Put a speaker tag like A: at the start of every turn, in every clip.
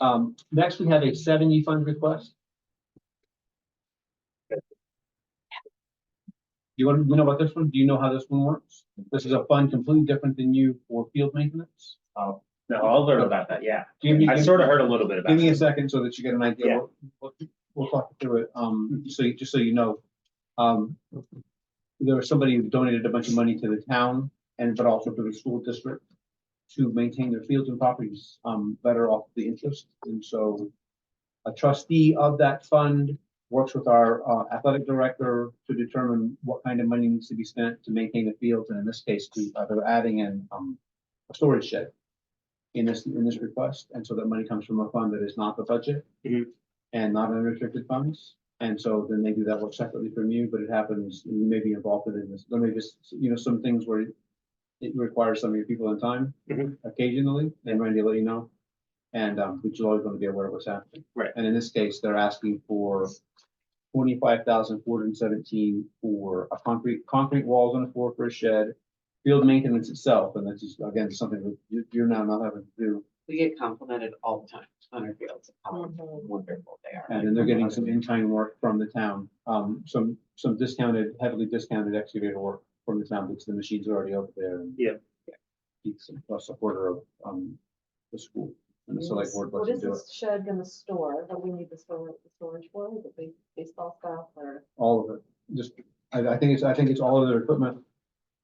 A: Um, next, we have a seven E fund request. You want to know about this one? Do you know how this one works? This is a fund completely different than you for field maintenance. Uh,
B: No, I'll learn about that, yeah.
A: Give me-
B: I sort of heard a little bit about
A: Give me a
B: it.
A: second so that you get an idea.
B: Yeah.
A: We'll- We'll we'll talk through it, um, so you, just so you know. Um, there was somebody who donated a bunch of money to the town and but also to the school district to maintain their fields and properties, um, better off the interest. And so a trustee of that fund works with our uh, athletic director to determine what kind of money needs to be spent to maintain the fields. And in this case, to, uh, they're adding in, um, a storage shed in this, in this request, and so that money comes from a fund that is not the budget
B: Mhm.
A: and not unrestricted funds. And so then they do that work separately from you, but it happens, and you may be involved in this, there may just, you know, some things where it requires some of your people in time
B: Mhm.
A: occasionally, and Randy will let you know. And, um, but you're always gonna be aware of what's happening.
B: Right.
A: And in this case, they're asking for twenty-five thousand four hundred and seventeen for a concrete, concrete walls on the floor for a shed, field maintenance itself, and that's just, again, something that you- you're now not having to do.
C: We get complimented all the time on our fields, how
D: Mm-hmm.
C: wonderful they are.
A: And then they're getting some in-kind work from the town, um, some, some discounted, heavily discounted excavator work from the town, because the machine's are already over there. and-
B: Yeah.
A: It's a supporter of, um, the school, and the select board
D: What
A: lets
D: is
A: them do it,
D: this shed gonna store that we need the storage, the storage for, the big baseball stuff or?
A: all of it, just, I, I think it's, I think it's all of their equipment.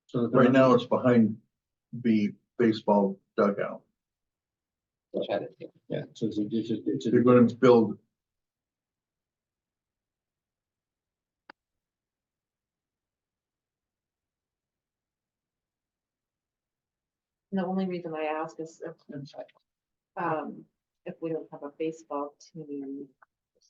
A: So that they're
E: Right
A: not-
E: now, it's behind the baseball dugout.
C: Which I didn't do.
A: Yeah, so it's, a- it's, a- it's,
E: They're
A: a-
E: gonna build,
D: And the only reason I ask is if, um, if we don't have a baseball team,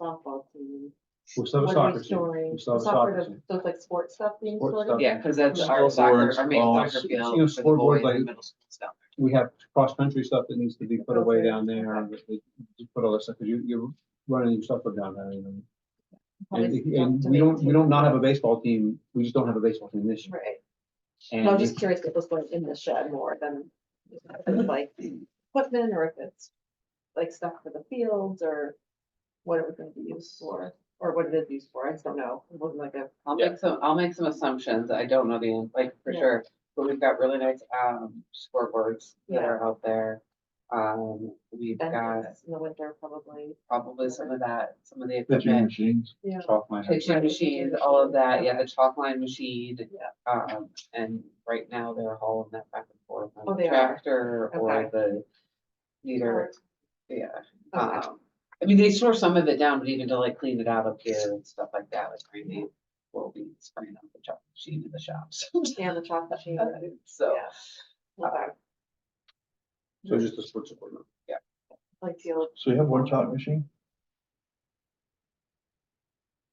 D: softball team.
A: we'll still have a
D: What are
A: soccer
D: we
A: team.
D: storing?
A: We'll still have a
D: Soccer,
A: soccer
D: does-
A: team.
D: does, like sports stuff being
A: Sports
D: stored?
A: stuff.
C: Yeah, because that's our
E: Scoreboards,
C: soccer, our main
E: balls,
C: soccer
A: you know,
C: field for the
A: scoreboard,
C: boys and
A: like-
C: middle school stuff.
A: we have cross-country stuff that needs to be put away
D: Okay.
A: down there, and we- we just put all that stuff, 'cause you, you're running your stuff down there, you know. And,
D: Probably
A: if-
D: stuff
A: and
D: to
A: we don't, we
D: maintain.
A: don't not have a baseball team, we just don't have a baseball team this year.
D: Right, no, I'm
A: And
D: just curious if this going in the shed more than if it's like equipment or if it's like stuff for the fields or what it was gonna be used for, or what it is used for, I just don't know. It wasn't like a,
C: I'll
B: Yeah.
C: make some, I'll make some assumptions. I don't know the, an- like, for
D: Yeah.
C: sure, but we've got really nice, um, scoreboards that
D: Yeah.
C: are out there. Um, we've
D: bench
C: got
D: in the winter probably.
C: probably some of that, some of the
E: pitching
C: equipment.
E: machines.
D: Yeah.
A: chalk my head.
C: Pitching
D: Right.
C: machines, all of that, yeah, the chalk line machine.
D: Yeah.
C: Um, and right now they're hauling that back and forth
D: Oh,
C: on the
D: they are.
C: tractor or
D: Okay. Oh,
C: the leader, yeah.
D: Okay.
A: Uh,
C: Um, I mean, they store some of it down, but even to like clean it out up here and stuff like that, like Randy will be spraying up the chalk machine in the shops.
D: And the chalk machine.
C: So,
D: Yeah. Okay.
A: uh, So just the sports equipment.
D: Like the old,
E: So you have one chalk machine?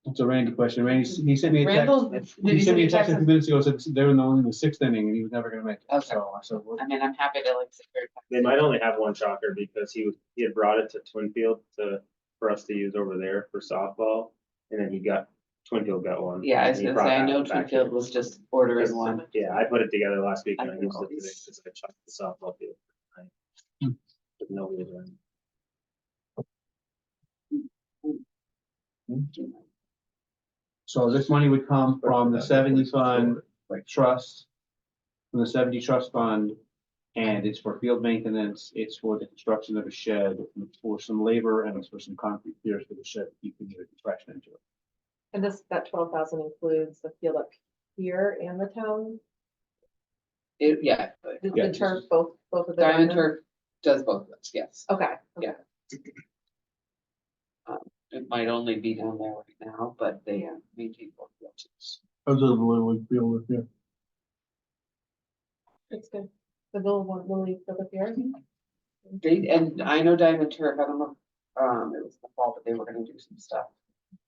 A: It's a Randy question, Randy, s- he sent me a text,
C: Randall, did
A: he
C: you
A: sent
C: send
A: me a
C: me
A: text a
C: texts?
A: few minutes ago, said they were in the only in the sixth inning, and he was never gonna make it,
C: Okay.
A: so I said, well,
C: I mean, I'm happy to like. sit here
B: They might only have one shocker because he, was- he had brought it to Twinfield to, for us to use over there for softball. And then he got, Twinfield got one.
C: Yeah, I was
B: and he
C: gonna
B: brought
C: say, I
B: that
C: know
B: one back
C: Twinfield
B: here.
C: was just ordering
B: Because-
C: one.
B: Yeah, I put it together last week and
C: I
B: I
C: can
B: used it
C: always-
B: today because I chucked the softball field. tonight.
A: Hmm.
B: But No, we didn't.
A: so this money would come from the seventy fund
E: Right.
A: trust. From the seventy trust fund, and it's for field maintenance, it's for the construction of a shed, and it's for some labor, and it's for some concrete piers for the shed, you can get a contraction into it.
D: and this, that twelve thousand includes the field up here and the town,
C: It, yeah,
D: the-
A: Yeah,
D: the turf, both, both of the.
C: Diamond
D: diamonds?
C: Turf does both of those, yes.
D: Okay. okay.
C: It might only be down there right now, but they
D: Yeah.
C: maintain both fields.
E: Those are the little league field with you.
D: It's good. The little one, Lily, for the fair.
C: They, and I know Diamond Turf, I don't know, um, it was the fall, but they were gonna do some stuff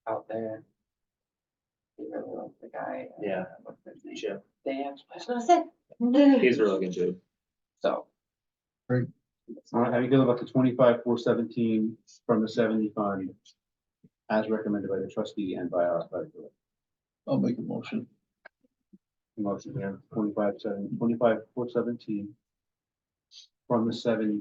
C: out there. They really like the guy. uh,
B: Yeah.
C: What's his name?
B: Chip,
C: Dan, I was gonna say. So.
B: he's a really good dude.
E: Great.
A: All right, how you feel about the twenty-five, four seventeen from the seventy fund? As recommended by the trustee and by our athletic director.
E: I'll make a motion.
A: Motion here, twenty-five, seven, twenty-five, four seventeen. From the seventy